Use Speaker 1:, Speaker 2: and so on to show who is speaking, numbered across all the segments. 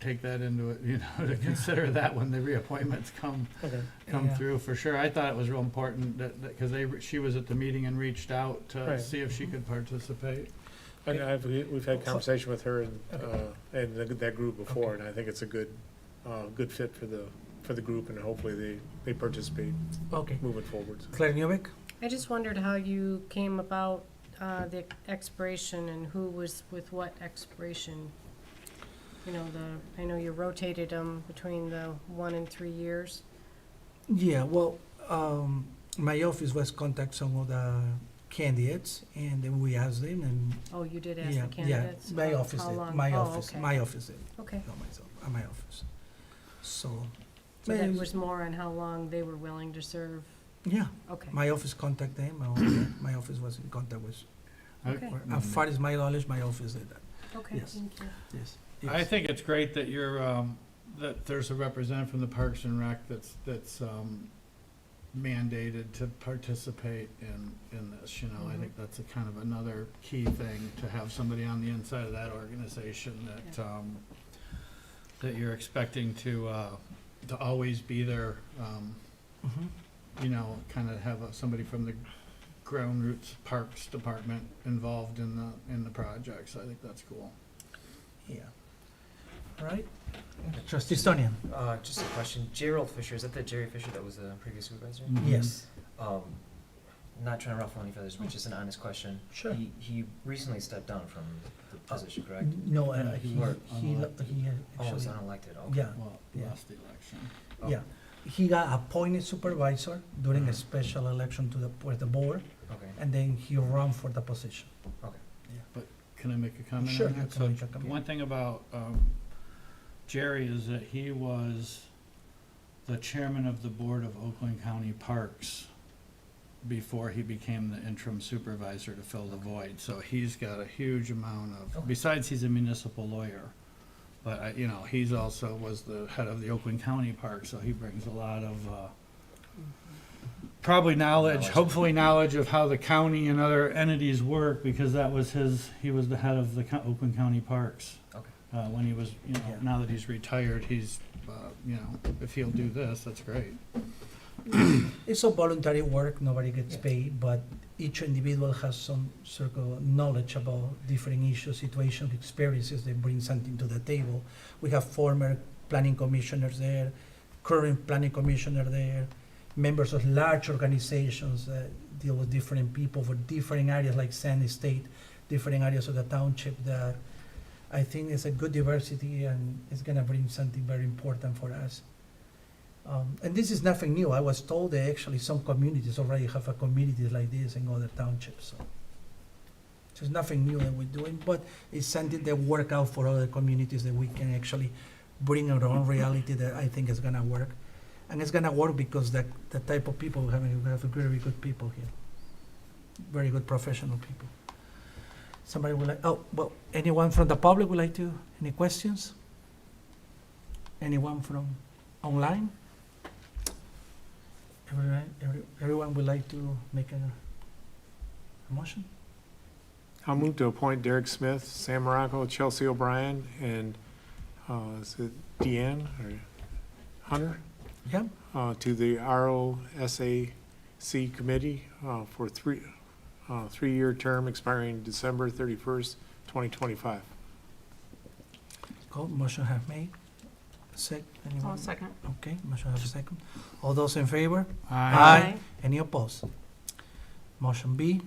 Speaker 1: take that into it, you know, to consider that when the reappointments come,
Speaker 2: Okay.
Speaker 1: come
Speaker 3: Yeah.
Speaker 1: through for sure. I thought it was real important that, that, cause they, she was at the meeting and reached out to
Speaker 2: Right.
Speaker 1: see if she could participate.
Speaker 2: And I've, we- we've had
Speaker 3: Cl-
Speaker 2: conversation with her and, uh,
Speaker 3: Okay.
Speaker 2: and the- that group before, and I think it's a good, uh, good fit for the, for the group, and hopefully they, they participate
Speaker 3: Okay.
Speaker 2: moving forward.
Speaker 3: Claire Newbeck?
Speaker 4: I just wondered how you came about uh, the expiration and who was with what expiration. You know, the, I know you rotated them between the one and three years.
Speaker 3: Yeah, well, um, my office was contact some of the candidates and then we asked them and
Speaker 4: Oh, you did ask
Speaker 3: yeah,
Speaker 4: the
Speaker 3: yeah,
Speaker 4: candidates?
Speaker 3: my
Speaker 4: How-
Speaker 3: office
Speaker 4: how
Speaker 3: did,
Speaker 4: long?
Speaker 3: my
Speaker 4: Oh,
Speaker 3: office,
Speaker 4: okay.
Speaker 3: my office did,
Speaker 4: Okay,
Speaker 3: not myself, uh, my office. So,
Speaker 4: so that
Speaker 3: Maybe-
Speaker 4: was more on how long they were willing to serve,
Speaker 3: yeah,
Speaker 4: okay.
Speaker 3: my office contact them, my office, my office was in contact with,
Speaker 4: Okay,
Speaker 3: or as far as my knowledge, my office did that,
Speaker 4: okay,
Speaker 3: yes.
Speaker 4: thank you.
Speaker 3: yes.
Speaker 1: I
Speaker 3: yes.
Speaker 1: think it's great that you're, um, that there's a representative from the Parks and Rec that's, that's, um, mandated to participate in, in this, you know, I think that's a kind of another key thing, to have somebody on the inside of that organization that, um, that you're expecting to, uh, to always be there, um,
Speaker 3: Mhm.
Speaker 1: you know, kind of have a- somebody from the ground roots parks department involved in the, in the projects, I think that's cool.
Speaker 3: Yeah. All right. Trustee Stonian?
Speaker 5: Uh, just a question. Gerald Fisher, is that the Jerry Fisher that was the previous supervisor?
Speaker 1: Mhm.
Speaker 3: Yes.
Speaker 5: Um, not trying to ruffle any feathers, but just an honest question.
Speaker 3: Sure. Uh,
Speaker 5: He, he recently stepped down from the position, correct?
Speaker 3: No, uh,
Speaker 1: Yeah, he
Speaker 3: he,
Speaker 1: was
Speaker 3: he, lo-
Speaker 1: unelected.
Speaker 3: he had
Speaker 5: Oh, he's
Speaker 3: actually,
Speaker 5: unelected, okay.
Speaker 3: yeah,
Speaker 1: Well,
Speaker 3: Yeah.
Speaker 1: lost the election.
Speaker 5: Oh,
Speaker 3: yeah. He got appointed supervisor during a
Speaker 5: Mhm.
Speaker 3: special election to the, with the board,
Speaker 5: Okay,
Speaker 3: and then he ran for the position.
Speaker 5: okay.
Speaker 1: Can I make a comment on
Speaker 3: Sure,
Speaker 1: that?
Speaker 3: you can
Speaker 1: So
Speaker 3: make a comment.
Speaker 1: One thing about um, Jerry is that he was the chairman of the board of Oakland County Parks before he became the interim supervisor to fill the void. So he's got a huge amount of,
Speaker 5: Okay.
Speaker 1: besides he's a municipal lawyer, but, I- you know, he's also was the head of the Oakland County Park, so he brings a lot of, uh, probably knowledge,
Speaker 5: Knowledge.
Speaker 1: hopefully knowledge of how the county and other entities work, because that was his, he was the head of the co- Oakland County Parks.
Speaker 5: Okay.
Speaker 1: Uh, when he was, you know,
Speaker 3: Yeah.
Speaker 1: now that he's retired, he's, uh, you know, if he'll do this, that's great.
Speaker 3: It's a voluntary work, nobody gets
Speaker 5: Yeah.
Speaker 3: paid, but each individual has some circle knowledge about different issues, situations, experiences, they bring something to the table. We have former planning commissioners there, current planning commissioner there, members of large organizations that deal with different people for different areas like Sandy State, different areas of the township that I think is a good diversity and it's gonna bring something very important for us. Um, and this is nothing new. I was told that actually some communities already have a community like this in other townships, so. So it's nothing new that we're doing, but it's something that work out for other communities that we can actually bring our own reality that I think is gonna work. And it's gonna work because that, the type of people we have, we have very good people here. Very good professional people. Somebody would like, oh, well, anyone from the public would like to, any questions? Anyone from online? Everyone, every- everyone would like to make a, a motion?
Speaker 2: I'll move to appoint Derek Smith, Sam Morocco, Chelsea O'Brien, and, uh, is it Deanne or Hunter?
Speaker 3: Yeah,
Speaker 2: uh, to the ROSAC Committee uh, for three, uh, three-year term expiring December thirty-first, twenty twenty-five.
Speaker 3: Cool, motion have made. Sec, anyone?
Speaker 4: second.
Speaker 3: Okay, motion have second. All those in favor?
Speaker 1: I
Speaker 3: Aye. Any opposed? Motion B,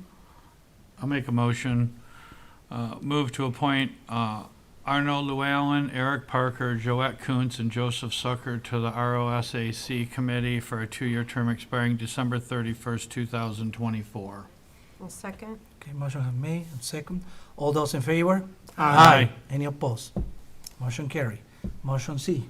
Speaker 1: I'll make a motion, uh, move to appoint uh, Arno Llewellyn, Eric Parker, Joette Kuntz, and Joseph Sucker to the ROSAC Committee for a two-year term expiring December 31st, 2024.
Speaker 4: second?
Speaker 3: okay, motion have made and second. All those in favor?
Speaker 1: Aye.
Speaker 3: Any opposed? Motion carry. Motion C,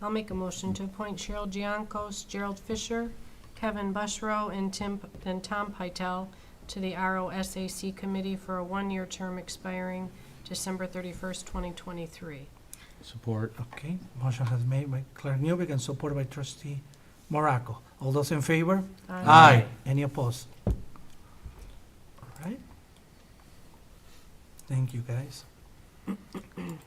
Speaker 4: I'll make a motion to appoint Cheryl Giancos, Gerald Fisher, Kevin Bushrow, and Tim, and Tom Pytel to the ROSAC Committee for a one-year term expiring December thirty-first, twenty twenty-three.
Speaker 1: Support.
Speaker 3: okay, motion has made by Clerk Newbeck and supported by trustee Morocco. All those in favor?
Speaker 1: Aye.
Speaker 3: Any opposed? All right. Thank you, guys.